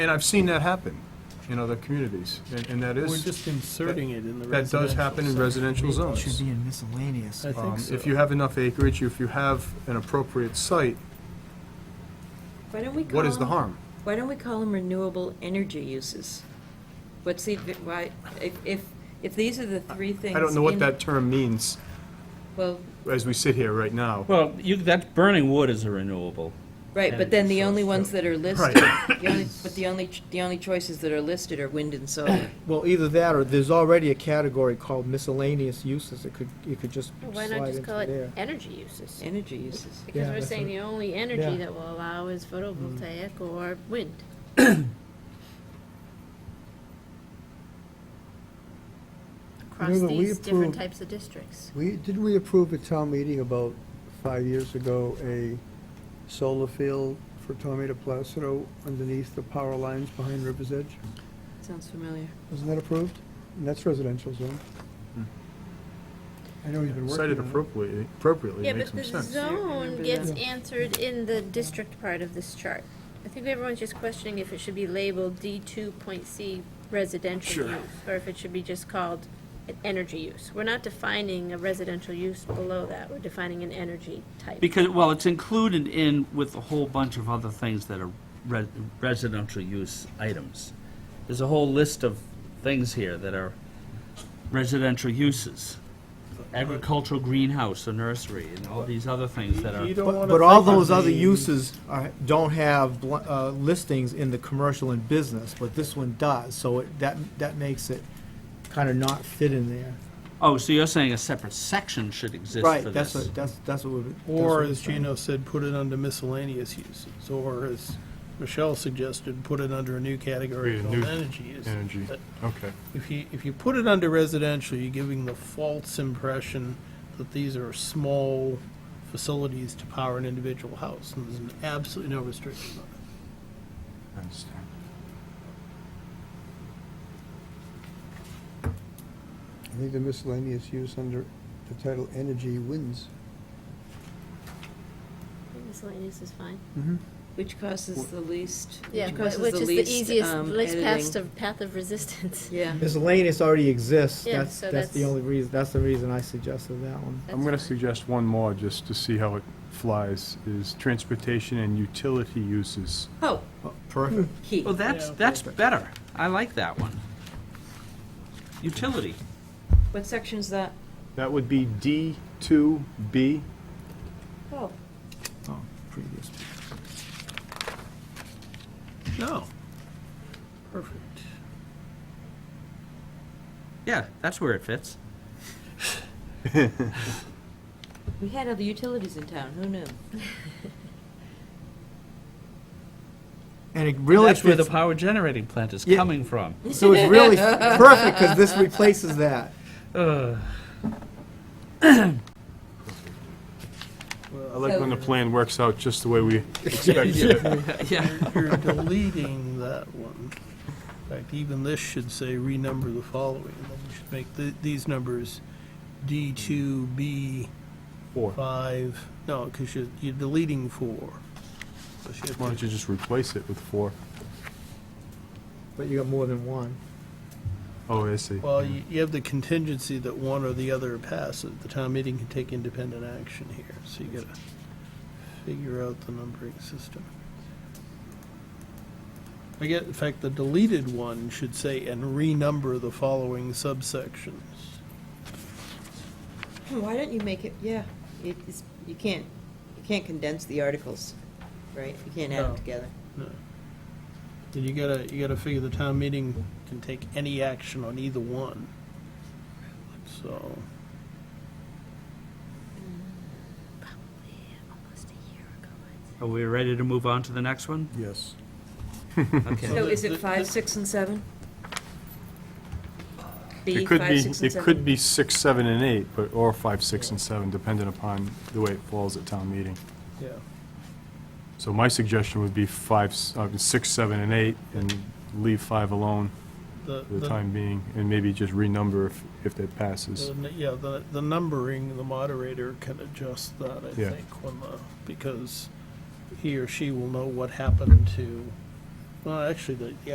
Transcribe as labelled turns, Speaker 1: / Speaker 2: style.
Speaker 1: And I've seen that happen in other communities, and, and that
Speaker 2: We're
Speaker 1: is,
Speaker 2: just inserting it in the
Speaker 1: that
Speaker 2: residential.
Speaker 1: does happen in
Speaker 2: section.
Speaker 1: residential
Speaker 3: It
Speaker 1: zones.
Speaker 3: Should be in miscellaneous.
Speaker 2: I
Speaker 1: Um,
Speaker 2: think so.
Speaker 1: If you have enough acreage, if you have an appropriate site,
Speaker 4: Why don't we call?
Speaker 1: what is the
Speaker 4: them-
Speaker 1: harm?
Speaker 4: Why don't we call them renewable energy uses? What's the, why, if, if, if these are the three things.
Speaker 1: I don't know what
Speaker 4: in-
Speaker 1: that term means
Speaker 4: Well,
Speaker 1: as we sit here right now.
Speaker 5: Well, you, that burning wood is a renewable.
Speaker 4: right, but then the
Speaker 5: Energy
Speaker 4: only
Speaker 5: source,
Speaker 4: ones
Speaker 5: so-
Speaker 4: that are listed, the only, but the only, ch- the only choices that are listed are wind and solar.
Speaker 6: Well, either that or there's already a category called miscellaneous uses. It could, it could just
Speaker 7: Well, Why not
Speaker 6: slide
Speaker 7: just
Speaker 6: into
Speaker 7: call it
Speaker 6: there.
Speaker 7: energy uses?
Speaker 4: Energy uses.
Speaker 7: Because
Speaker 6: Yeah,
Speaker 7: we're
Speaker 6: that's
Speaker 7: saying
Speaker 6: right.
Speaker 7: the only energy
Speaker 6: Yeah. Mm-hmm.
Speaker 7: that will allow is photovoltaic or wind. Across
Speaker 8: Remember, we
Speaker 7: these different
Speaker 8: approved-
Speaker 7: types of districts.
Speaker 8: We, didn't we approve at town meeting about five years ago a solar field for Tommy de Placido underneath the power lines behind River's Edge?
Speaker 4: Sounds familiar.
Speaker 8: Wasn't that approved? And that's residential zone.
Speaker 1: Hmm.
Speaker 8: I know he's been working on it.
Speaker 1: Cited appropriately, appropriately
Speaker 7: Yeah,
Speaker 1: it makes
Speaker 7: but
Speaker 1: some
Speaker 7: the
Speaker 1: sense.
Speaker 7: zone
Speaker 4: Remember
Speaker 7: gets
Speaker 4: that.
Speaker 7: answered in the district part of this chart. I think everyone's just questioning if it should be labeled D two point C residential use, or if it should be just called an energy use. We're not defining a residential use below that, we're defining an energy type.
Speaker 5: Because, well, it's included in with a whole bunch of other things that are re- residential use items. There's a whole list of things here that are residential uses. Agricultural greenhouse, a nursery, and all these other things that are.
Speaker 2: You don't
Speaker 6: But
Speaker 2: wanna
Speaker 6: but all
Speaker 2: think of
Speaker 6: those other
Speaker 2: the-
Speaker 6: uses are, don't have bl- uh, listings in the commercial and business, but this one does, so it, that, that makes it kind of not fit in there.
Speaker 5: Oh, so you're saying a separate section should exist for this?
Speaker 6: Right, that's what, that's, that's what we.
Speaker 2: Or as Gino said, put it under miscellaneous uses, or as Michelle suggested, put it under a new category
Speaker 1: Create a
Speaker 2: called
Speaker 1: new
Speaker 2: energy uses.
Speaker 1: energy.
Speaker 2: But
Speaker 1: Okay.
Speaker 2: If you, if you put it under residential, you're giving the false impression that these are small facilities to power an individual house, and there's absolutely no restriction on it.
Speaker 1: I understand.
Speaker 8: I think the miscellaneous use under the title energy wins.
Speaker 7: Miscellaneous is fine.
Speaker 4: Which causes the least,
Speaker 7: Yeah,
Speaker 4: which
Speaker 7: wh-
Speaker 4: causes
Speaker 7: which
Speaker 4: the
Speaker 7: is the
Speaker 4: least,
Speaker 7: easiest,
Speaker 4: um,
Speaker 7: least path
Speaker 4: editing.
Speaker 7: of, path of resistance.
Speaker 4: Yeah.
Speaker 6: Miscellaneous already exists,
Speaker 7: Yeah,
Speaker 6: that's,
Speaker 7: so
Speaker 6: that's the
Speaker 7: that's-
Speaker 6: only reason, that's the reason I suggested that one.
Speaker 1: I'm gonna suggest one more, just to see how it flies, is transportation and utility uses.
Speaker 4: Oh,
Speaker 6: Perfect.
Speaker 4: key.
Speaker 5: Well, that's, that's better. I like that one. Utility.
Speaker 4: What section's that?
Speaker 1: That would be D two B.
Speaker 4: Oh,
Speaker 6: Oh, previous.
Speaker 2: No. Perfect.
Speaker 5: Yeah, that's where it fits.
Speaker 4: we had other utilities in town, who knew?
Speaker 6: And it really
Speaker 5: That's where the
Speaker 6: fits,
Speaker 5: power generating plant is
Speaker 6: Yeah.
Speaker 5: coming from.
Speaker 6: so it's really perfect, because this replaces that.
Speaker 5: Ugh.
Speaker 1: I like when the plan works out just the way we expected it.
Speaker 5: Yeah.
Speaker 2: You're deleting that one. In fact, even this should say renumber the following, and then we should make th- these numbers D two, B
Speaker 1: Four. Why
Speaker 2: five, no, because you're, you're deleting four. So she had to-
Speaker 1: don't you just replace it with four?
Speaker 6: But you got more than one.
Speaker 1: Oh, I see.
Speaker 2: Well, you, you have the contingency that one or the other passes. The town meeting can take independent action here, so you gotta figure out the numbering system. I get, in fact, the deleted one should say, and renumber the following subsections.
Speaker 4: Why don't you make it, yeah, it is, you can't, you can't condense the articles, right? You can't add
Speaker 2: No.
Speaker 4: them together.
Speaker 2: No. And you gotta, you gotta figure the town meeting can take any action on either one. So,
Speaker 7: Almost a year ago, I'd say.
Speaker 5: Are we ready to move on to the next one?
Speaker 8: Yes.
Speaker 5: Okay.
Speaker 4: So is
Speaker 2: the-
Speaker 4: it five, six, and seven? B,
Speaker 1: It could
Speaker 4: five,
Speaker 1: be,
Speaker 4: six, and
Speaker 1: it
Speaker 4: seven?
Speaker 1: could be six, seven, and eight, but, or five, six, and seven, depending upon the way it falls at town meeting.
Speaker 2: yeah.
Speaker 1: So my suggestion would be five, s- uh, six, seven, and eight, and leave five alone
Speaker 2: The,
Speaker 1: for the
Speaker 2: the,
Speaker 1: time being, and maybe just renumber if, if that passes.
Speaker 2: the n- yeah, the, the numbering, the moderator can adjust that, I
Speaker 1: Yeah.
Speaker 2: think, when the, because he or she will know what happened to Well, actually, the, the